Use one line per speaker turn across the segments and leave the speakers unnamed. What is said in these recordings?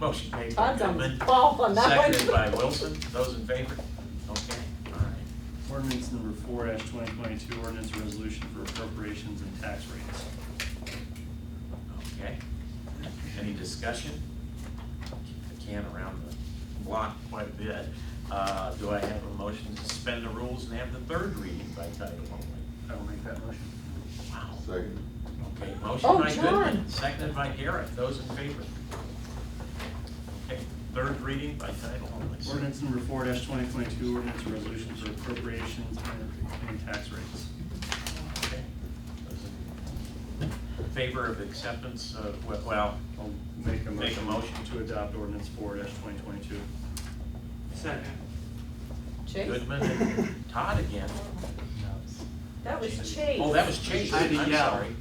Motion made by
Todd's on the
Goodman,
ball on that one.
seconded by Wilson. Those in favor? Okay, all right.
Ordinance number four twenty twenty-two, ordinance resolution for appropriations and tax rates.
Okay. Any discussion? Kicked the can around the block quite a bit. Uh, Do I have a motion to suspend the rules and have the third reading by title only?
I will make that motion.
Wow.
Second.
Okay,
Oh,
motion by
John.
Goodman, seconded by Garrett. Those in favor? Okay, third reading by title only.
Ordinance number four twenty twenty-two, ordinance resolution for appropriations and, and tax rates.
Okay. In Favor of acceptance of, we- well,
I'll make a motion.
Make a motion.
To adopt ordinance four twenty twenty-two.
Chase?
Goodman and Todd again.
That was Chase.
Oh, that was Chase,
I had
I'm
to yell.
sorry.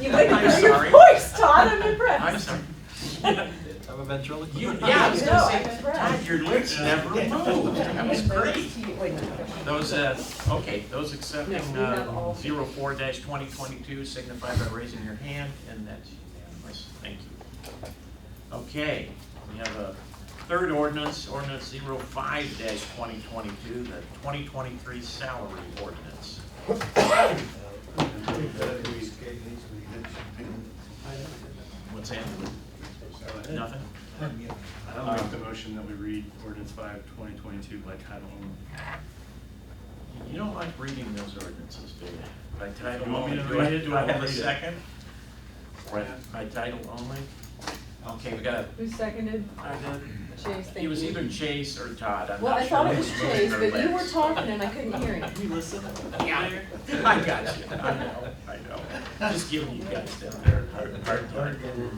You wouldn't
I'm
hear your
sorry.
voice, Todd, I'm
I'm
impressed.
sorry.
I'm a ventriloquist.
You, yeah, I was
No,
gonna
I'm
say,
impressed.
Todd, your lips never moved, that was great. Those, uh, okay, those accepting,
No, we have all-
uh, zero four dash twenty twenty-two signify by raising your hand, and that's unanimous, thank you. Okay, we have a third ordinance, ordinance zero five dash twenty twenty-two, the twenty twenty-three salary ordinance. What's that? Nothing?
I'll make the motion that we read ordinance five twenty twenty-two by title only.
You don't like reading those ordinances, do you? By
You
title
want me
only,
to
do I,
read it?
do I have
I'll
a
read it.
second? Right, by title only? Okay, we got a,
Who seconded Chase?
it
Thank
was
you.
either Chase or Todd, I'm
Well,
not
I
sure
thought it
who
was
moving
Chase,
their
but you were
legs.
talking and I couldn't hear him.
You listen?
Yeah, I got you, I know, I know, just giving you guys down there, hard, hard time.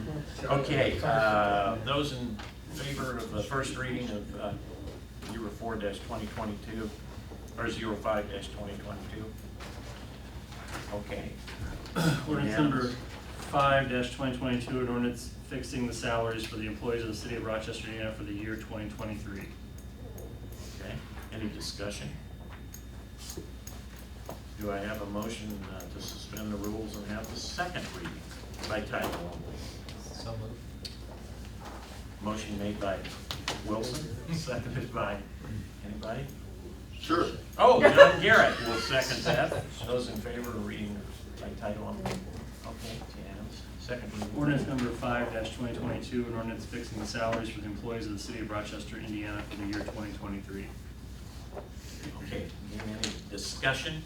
Okay, uh, those in favor of the first reading of, uh, zero four dash twenty twenty-two, or zero five dash twenty twenty-two? Okay,
Ordinance
Yes.
number five twenty twenty-two, an ordinance fixing the salaries for the employees of the city of Rochester, Indiana for the year twenty twenty-three.
Okay, any discussion? Do I have a motion uh, to suspend the rules and have the second reading by title only?
So moved.
Motion made by Wilson, seconded by, anybody?
Sure.
Oh, John Garrett will second that. Those in favor of reading by title only? Okay, it's unanimous. Second reading.
Ordinance number five twenty twenty-two, an ordinance fixing the salaries for the employees of the city of Rochester, Indiana for the year twenty twenty-three.
Okay, any discussion?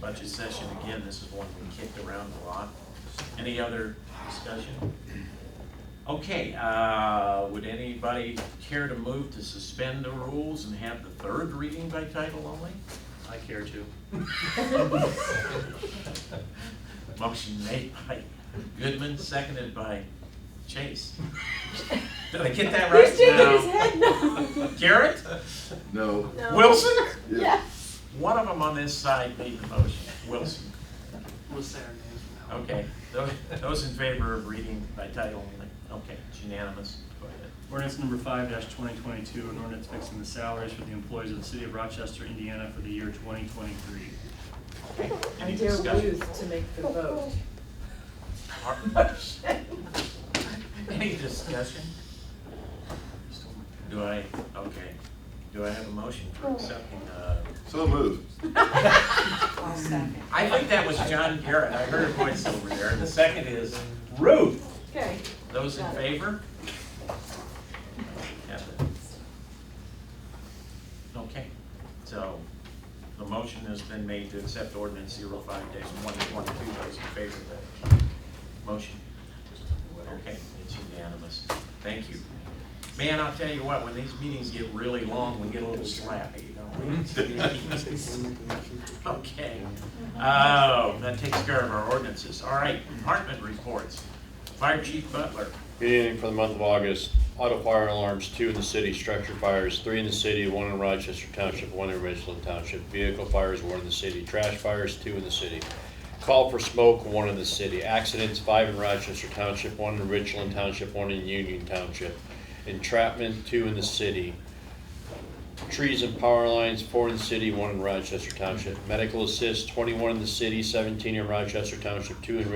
Budget session, again, this is one we kicked around a lot. Any other discussion? Okay, uh, would anybody care to move to suspend the rules and have the third reading by title only?
I care to.
uh, Motion made by Goodman, seconded by Chase. Did I get that right?
He's shaking his
No.
head no.
Garrett?
No.
No.
Wilson?
Yes.
One of them on this side made the motion, Wilson.
We'll say our names now.
Okay, tho- those in favor of reading by title only, okay, it's unanimous, go ahead.
Ordinance number five twenty twenty-two, an ordinance fixing the salaries for the employees of the city of Rochester, Indiana for the year twenty twenty-three.
I
Any
dare
discussion?
lose to make the vote.
Ar- Any discussion? Do I, okay, do I have a motion for accepting, uh,
So moved.
I think that was John Garrett, I heard a voice over there, the second is Ruth.
Okay.
Those in favor? Have it. Okay, so the motion has been made to accept ordinance 05 twenty twenty-two, those in favor of that motion? Okay, it's unanimous, thank you. Man, I'll tell you what, when these meetings get really long, we get a little slappy, don't we? Okay, oh, that takes care of our ordinances, all right, department reports, Fire Chief Butler.
Good evening for the month of August. Auto fire alarms, two in the city, structure fires, three in the city, one in Rochester Township, one in Richland Township. Vehicle fires, one in the city. Trash fires, two in the city. Call for smoke, one in the city. Accidents, five in Rochester Township, one in Richland Township, one in Union Township. Entrapment, two in the city. Trees and power lines, four in the city, one in Rochester Township. Medical assist, twenty-one in the city, seventeen in Rochester Township, two in